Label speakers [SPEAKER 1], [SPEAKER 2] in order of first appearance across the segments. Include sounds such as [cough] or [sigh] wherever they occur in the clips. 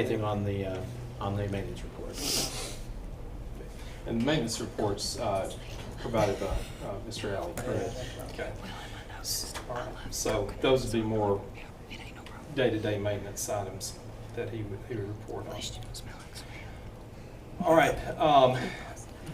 [SPEAKER 1] Anything on the, uh, on the maintenance
[SPEAKER 2] [laughs]
[SPEAKER 1] report?
[SPEAKER 3] And the maintenance reports uh, provided by uh, Mr. Alley. Okay. So those would be more day-to-day maintenance items that he would, he would report on. All right, um,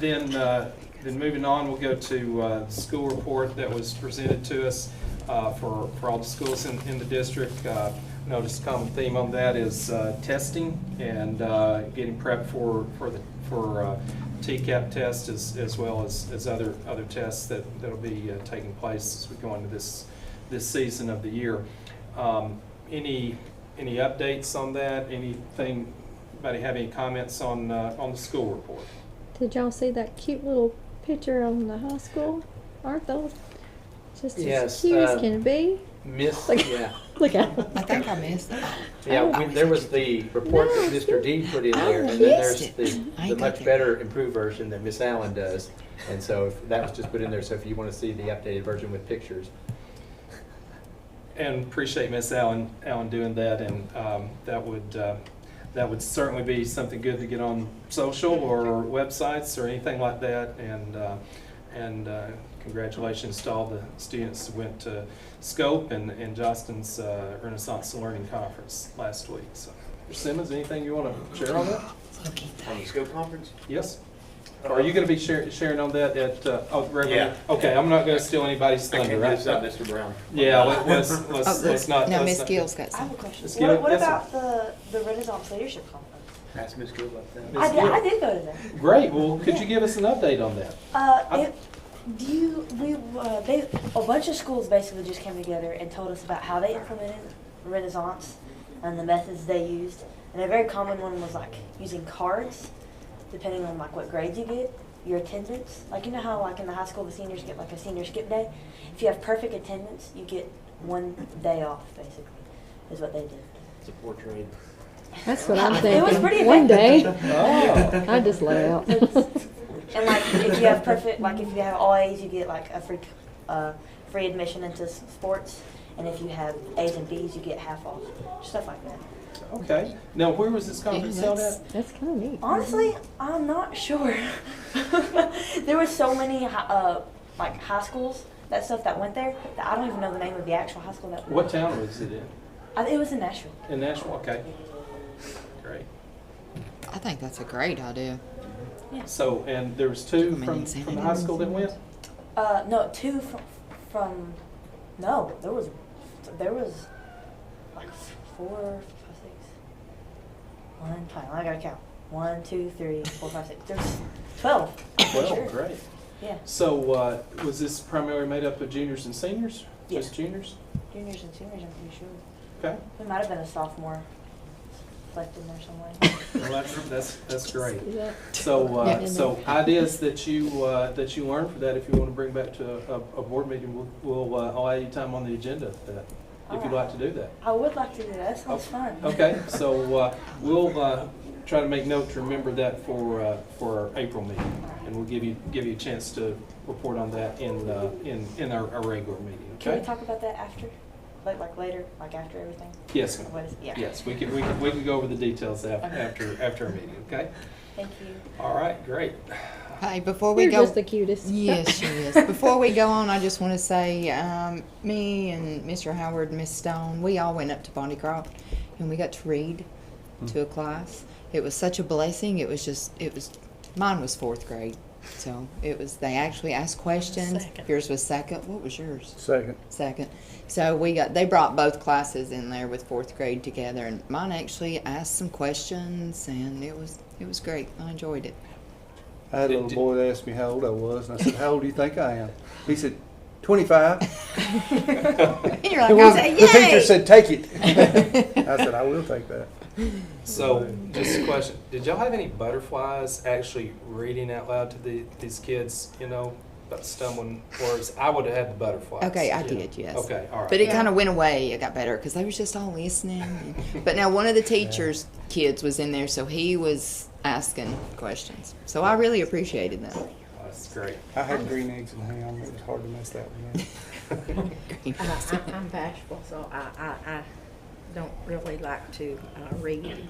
[SPEAKER 3] then, uh, then moving on, we'll go to uh, the school report that was presented to us uh, for, for all the schools in, in the district. Uh, Notice common theme on that is uh, testing and uh, getting prepped for, for the, for uh, TCAP test as, as well as, as other, other tests that, that'll be uh, taking place as we go into this, this season of the year. Um, Any, any updates on that? Anything Anybody have any comments on, uh, on the school report?
[SPEAKER 4] Did y'all see that cute little picture on the high school? Aren't those just as
[SPEAKER 5] Yes,
[SPEAKER 4] cute
[SPEAKER 5] uh,
[SPEAKER 4] as can be?
[SPEAKER 5] Miss,
[SPEAKER 4] Like-
[SPEAKER 5] yeah,
[SPEAKER 4] [laughs] Look at them.
[SPEAKER 2] I think I missed Oh, it.
[SPEAKER 5] yeah, we- there was the report that
[SPEAKER 4] No.
[SPEAKER 5] Mr. D put in
[SPEAKER 2] I
[SPEAKER 5] there, and then there's
[SPEAKER 2] missed
[SPEAKER 5] the,
[SPEAKER 2] it. I
[SPEAKER 5] the
[SPEAKER 2] got
[SPEAKER 5] much
[SPEAKER 2] that.
[SPEAKER 5] better improved version that Miss Allen does. And so if- that was just put in there, so if you want to see the updated version with pictures.
[SPEAKER 3] And appreciate Miss Allen, Allen doing that, and um, that would, uh, that would certainly be something good to get on social or websites or anything like that, and, uh, and uh, congratulations to all the students who went to Scope and, and Justin's uh, Renaissance and Learning Conference last week, so. Mr. Simmons, anything you want to share on that?
[SPEAKER 6] On the scope conference?
[SPEAKER 3] Yes? Are you going to be shar- sharing on that at, uh, oh,
[SPEAKER 6] Yeah.
[SPEAKER 3] Reverend? Okay, I'm not going to steal anybody's
[SPEAKER 6] I
[SPEAKER 3] thunder,
[SPEAKER 6] can't
[SPEAKER 3] right?
[SPEAKER 6] miss out, Mr. Brown.
[SPEAKER 3] Yeah, let- let's,
[SPEAKER 2] Oh,
[SPEAKER 3] let's,
[SPEAKER 2] look,
[SPEAKER 3] let's not.
[SPEAKER 2] no,
[SPEAKER 3] let's
[SPEAKER 2] Miss
[SPEAKER 3] not-
[SPEAKER 2] Gill's got
[SPEAKER 7] I have a
[SPEAKER 2] some.
[SPEAKER 7] question.
[SPEAKER 3] Let's get it.
[SPEAKER 7] What, what
[SPEAKER 3] Yes,
[SPEAKER 7] about the, the Renaissance Leadership Conference?
[SPEAKER 6] Ask Ms. Gill about that.
[SPEAKER 3] Yes,
[SPEAKER 7] I did, I
[SPEAKER 3] ma'am.
[SPEAKER 7] did go to that.
[SPEAKER 3] Great, well, could you give us an update on that?
[SPEAKER 7] Uh,
[SPEAKER 3] I-
[SPEAKER 7] it, do you, we, uh, they, a bunch of schools basically just came together and told us about how they implemented Renaissance and the methods they used. And a very common one was like using cards, depending on like what grades you get, your attendance. Like you know how like in the high school the seniors get like a senior skip day. If you have perfect attendance, you get one day off. Basically, is what they did.
[SPEAKER 6] It's a portrait.
[SPEAKER 4] That's
[SPEAKER 7] [laughs]
[SPEAKER 4] what I'm thinking.
[SPEAKER 7] It was pretty
[SPEAKER 4] One
[SPEAKER 7] effective.
[SPEAKER 4] day, I just lay out.
[SPEAKER 7] And like, if you have perfect, like if you have all A's, you get like a free, uh, free admission into s- sports. And if you have A's and B's, you get half off, stuff like that.
[SPEAKER 3] Okay, now where was this conference
[SPEAKER 2] Yeah,
[SPEAKER 3] held
[SPEAKER 2] that's-
[SPEAKER 3] at?
[SPEAKER 4] [laughs] That's kind of neat.
[SPEAKER 7] Honestly, I'm not sure. [laughs] there were so many hi- uh, like high schools that stuff that went there that I don't even know the name of the actual high school that.
[SPEAKER 3] What town was it in?
[SPEAKER 7] I, it was in Nashville.
[SPEAKER 3] In Nashville, okay. Great.
[SPEAKER 2] I think that's a great idea.
[SPEAKER 3] So, and there was two
[SPEAKER 2] Come in
[SPEAKER 3] from,
[SPEAKER 2] and say
[SPEAKER 3] from the
[SPEAKER 2] that
[SPEAKER 3] high
[SPEAKER 2] is-
[SPEAKER 3] school that went?
[SPEAKER 7] Uh, no, two from, from. No, there was, there was, like f- four, five, six. One, five. I gotta count. One, two, three, four, five, six. There's twelve. I'm pretty
[SPEAKER 3] Well,
[SPEAKER 7] sure.
[SPEAKER 3] great.
[SPEAKER 7] Yeah,
[SPEAKER 3] So, uh, was this primarily made up of juniors and seniors?
[SPEAKER 7] Yeah.
[SPEAKER 3] Just juniors?
[SPEAKER 7] juniors and seniors. I'm pretty sure.
[SPEAKER 3] Okay,
[SPEAKER 7] We might have been a sophomore, left in there somewhere.
[SPEAKER 3] well, that's, that's, that's great.
[SPEAKER 4] Is that-
[SPEAKER 3] So, uh,
[SPEAKER 2] Yeah.
[SPEAKER 3] so ideas that you, uh, that you learned for that, if you want to bring back to a, a- a board meeting, we'll, we'll uh, allow you time on the agenda for that, if you'd like to do that.
[SPEAKER 7] I would like to do that. That sounds fun.
[SPEAKER 3] Oh, Okay,
[SPEAKER 7] [laughs]
[SPEAKER 3] so, uh, we'll, uh, try to make note to remember that for, uh, for our April meeting. And we'll give you, give you a chance to report on that in, uh, in, in our, our regular meeting,
[SPEAKER 7] Can we
[SPEAKER 3] okay?
[SPEAKER 7] talk about that after, like like later, like after everything?
[SPEAKER 3] Yes, ma'am.
[SPEAKER 7] What is? Yeah.
[SPEAKER 3] yes, we can, we can, we can go over the details af-
[SPEAKER 7] Okay.
[SPEAKER 3] after, after our meeting, okay?
[SPEAKER 7] Thank you.
[SPEAKER 3] All right, great.
[SPEAKER 2] Hey, before we
[SPEAKER 4] You're
[SPEAKER 2] go,
[SPEAKER 4] just the cutest.
[SPEAKER 2] yes, she
[SPEAKER 4] [laughs]
[SPEAKER 2] is. Before we go on, I just want to say, um, me and Mr. Howard, and Miss Stone, we all went up to Bondy Croft, and we got to read to a class. It was such a blessing. It was just, it was, mine was fourth grade, so it was. They actually asked questions. Yours was second. What was yours?
[SPEAKER 8] Second.
[SPEAKER 2] second. So we got they brought both classes in there with fourth grade together, and mine actually asked some questions, and it was it was great. I enjoyed it.
[SPEAKER 8] I had a
[SPEAKER 3] Did-
[SPEAKER 8] little
[SPEAKER 3] did-
[SPEAKER 8] boy that asked me how old I was, and I said, How old do you think I am? He said, 25.
[SPEAKER 2] [laughs] And you're like, I
[SPEAKER 8] The one-
[SPEAKER 2] said,
[SPEAKER 8] the teacher
[SPEAKER 2] "Yay!"
[SPEAKER 8] said,
[SPEAKER 2] [laughs]
[SPEAKER 8] Take it. I said, I will take that.
[SPEAKER 3] So, just a question, did y'all have any butterflies actually reading out loud to the, these kids, you know, about stumbling words? I would have had the butterflies.
[SPEAKER 2] Okay, I
[SPEAKER 3] Yeah.
[SPEAKER 2] did, yes.
[SPEAKER 3] Okay, all right.
[SPEAKER 2] But it kind of went away. It got better because they was just all listening. But now one of the teachers' kids was in there, so he was asking questions. So I really appreciated that.
[SPEAKER 3] [laughs] That's great.
[SPEAKER 8] I had green eggs and ham. It was hard to mess that one up.
[SPEAKER 2] [laughs]
[SPEAKER 9] I- I- I'm bashful, so I, I, I don't really like to uh, read